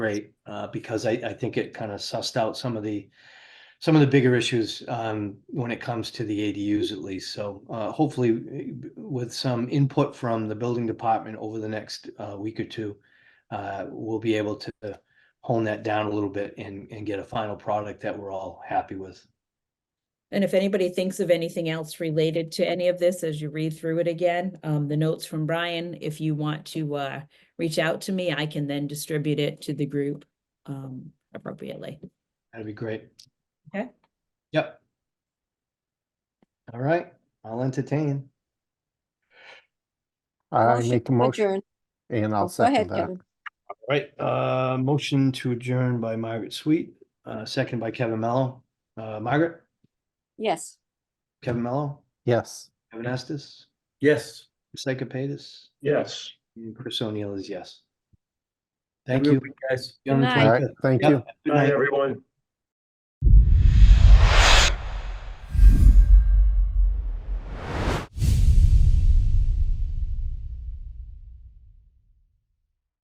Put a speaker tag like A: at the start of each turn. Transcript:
A: great, uh, because I, I think it kind of sussed out some of the, some of the bigger issues, um, when it comes to the ADUs at least. So, uh, hopefully eh, with some input from the building department over the next, uh, week or two, uh, we'll be able to hone that down a little bit and, and get a final product that we're all happy with.
B: And if anybody thinks of anything else related to any of this as you read through it again, um, the notes from Brian, if you want to, uh, reach out to me, I can then distribute it to the group, um, appropriately.
A: That'd be great.
B: Okay.
A: Yep. All right, I'll entertain.
C: I
D: Motion
C: make a
D: to
C: motion
D: adjourn.
C: and
D: Oh,
C: I'll
D: Go ahead,
C: second that.
D: Kevin.
A: All right, uh, motion to adjourn by Margaret Sweet, uh, second by Kevin Mello. Uh, Margaret,
D: Yes.
A: Kevin Mello,
C: Yes.
A: Kevin Estes,
E: Yes.
A: Psychopatis,
E: Yes.
A: and Chris O'Neill is yes. Thank
E: Have a
A: you.
E: good week, Guys.
A: gentlemen,
D: night.
C: All
D: Aye.
C: right,
A: thank you. Yep,
C: thank you.
A: good
E: Bye,
A: night.
E: everyone.